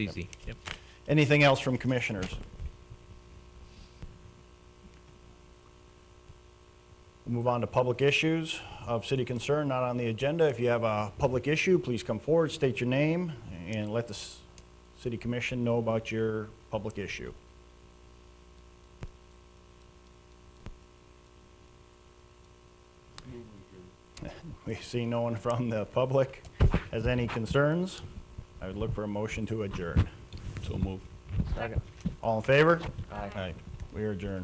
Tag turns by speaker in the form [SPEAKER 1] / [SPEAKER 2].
[SPEAKER 1] Easy. Yep.
[SPEAKER 2] Anything else from commissioners? We'll Move on to public issues of city concern, not on the agenda. If you have a public issue, please come forward, state your name, and let the s- city commission know about your public issue. We see no one from the public has any concerns. I would look for a motion to adjourn.
[SPEAKER 3] So move.
[SPEAKER 2] All in favor? Aye. We are adjourned.